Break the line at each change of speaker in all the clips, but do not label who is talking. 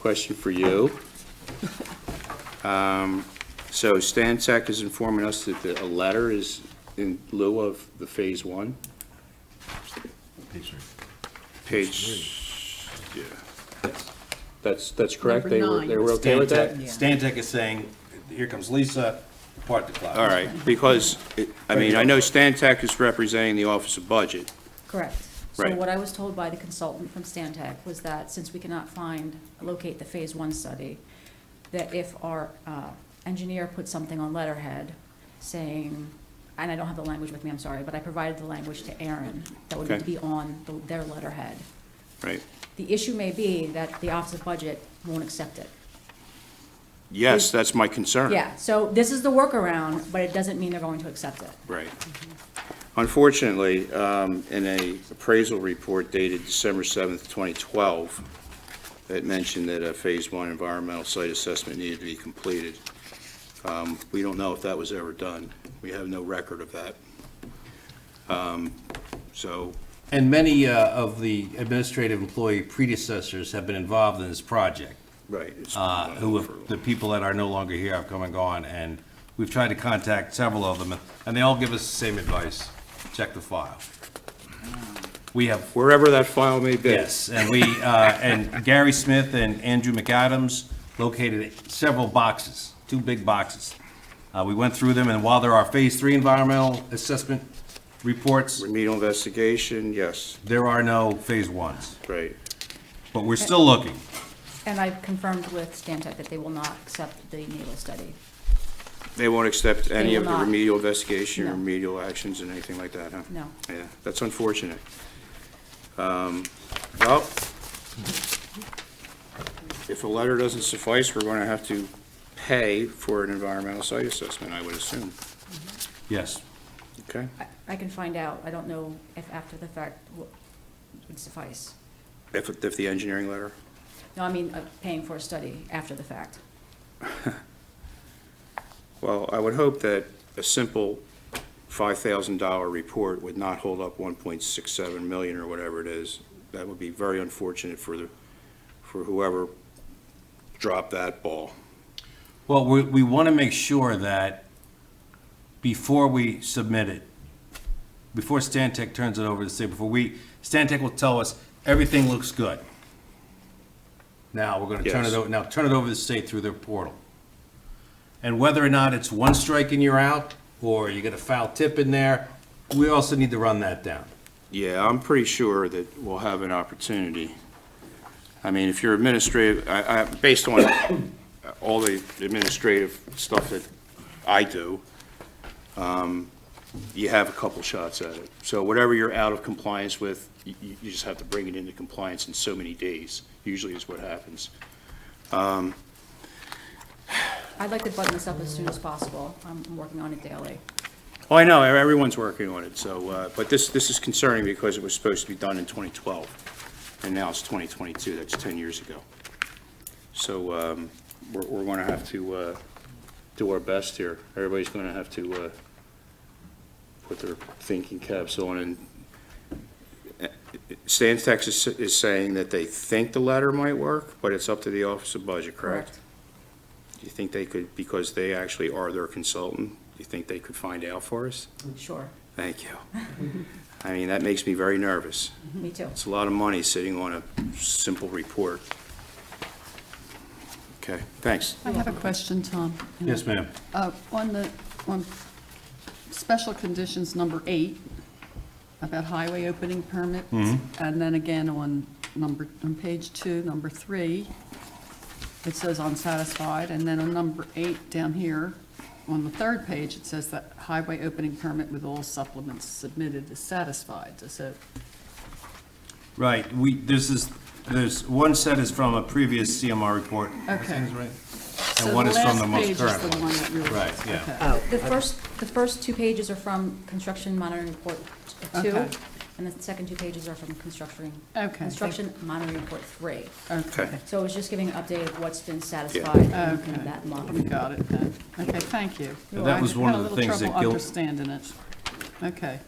question for you. Um, So Stantec is informing us that the- a letter is in lieu of the Phase One,
Page three.
page, yeah. That's, that's correct?
Number
They were, they
nine.
were okay with that?
Stantec- Stantec is saying, here comes Lisa, part the clock.
All right, because, it- I mean, I know Stantec is representing the Office of Budget.
Correct. So
Right.
what I was told by the consultant from Stantec was that since we cannot find, locate the Phase One study, that if our uh, engineer put something on letterhead saying, and I don't have the language with me, I'm sorry, but I provided the language to Aaron, that would need to
Okay.
be on the- their letterhead.
Right.
The issue may be that the Office of Budget won't accept it.
Yes, that's my concern.
Yeah, so this is the workaround, but it doesn't mean they're going to accept it.
Right. Unfortunately, um, in a appraisal report dated December 7th, 2012, that mentioned that a Phase 1 environmental site assessment needed to be completed. Um, We don't know if that was ever done. We have no record of that. Um, So,
And many uh, of the administrative employee predecessors have been involved in this project,
right. it's-
uh, who have, the people that are no longer here have come and gone, and we've tried to contact several of them, and they all give us the same advice, check the file. We have
Wherever that file may be.
Yes, and we, uh, and Gary Smith and Andrew McAdams located several boxes, two big boxes. Uh, We went through them, and while there are Phase Three environmental assessment reports,
Remedial investigation, yes,
there are no Phase Ones,
right.
but we're still looking.
And I've confirmed with Stantec that they will not accept the naval study.
They won't accept any
will
of the
not.
remedial investigation,
No.
remedial actions, and anything like that, huh?
No.
Yeah, that's unfortunate. Um, Well, if a letter doesn't suffice, we're going to have to pay for an environmental site assessment, I would assume,
Yes,
okay?
I- I can find out. I don't know if after the fact w- would suffice.
If, if the engineering letter,
No, I mean, uh, paying for a study after the fact.
well, I would hope that a simple $5,000 report would not hold up 1.67 million or whatever it is. That would be very unfortunate for the, for whoever dropped that ball.
well, we, we want to make sure that before we submit it, before Stantec turns it over to say, before we, Stantec will tell us, everything looks good. Now, we're gonna turn it
Yes.
over, now turn it over to the state through their portal. And whether or not it's one strike and you're out, or you get a foul tip in there, we also need to run that down.
Yeah, I'm pretty sure that we'll have an opportunity. I mean, if you're administrative, I, I, based on all the administrative stuff that I do, um, you have a couple shots at it. So whatever you're out of compliance with, you, you you just have to bring it into compliance in so many days, usually is what happens.
I'd like to button this up as soon as possible. I'm working on it daily.
Oh, I know, everyone's working on it, so, uh, but this, this is concerning because it was supposed to be done in 2012, and now it's 2022, that's 10 years ago. So um, we're, we're going to have to uh, do our best here. Everybody's going to have to uh, put their thinking caps on, and uh, Stantec is, is saying that they think the letter might work, but it's up to the Office of Budget, correct? Do you think they could, because they actually are their consultant, do you think they could find out for us?
Sure.
Thank you. I mean, that makes me very nervous.
Mm-hmm.
Me too.
It's a lot of money sitting on a simple report. Okay, thanks.
I have a question, Tom.
Yes, ma'am.
Uh, On the, on special conditions number eight, about highway opening permits,
Mm-hmm.
and then again on number, on page two, number three, it says unsatisfied, and then on number eight down here, on the third page, it says that highway opening permit with all supplements submitted is satisfied, so
Right, we, this is, there's, one set is from a previous CMR report.
Okay.
And one is from the most
So the last
current
page is the
one.
one that really.
Right, yeah.
okay.
The first, the first two pages are from Construction Monitoring Report Two,
Okay.
and the second two pages are from Construction,
Okay.
Construction Monitoring Report Three.
Okay.
Okay,
So it was just giving an update of what's been satisfied
okay.
in that
We
month.
got it then. Okay, thank you.
Yeah, that was one of the things that
I had a
Gil-
little trouble understanding it. Okay,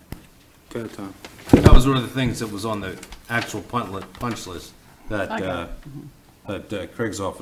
Go ahead, Tom.
That was one of the things that was on the actual punch li- punch list that
I got
uh, that uh, Craig's office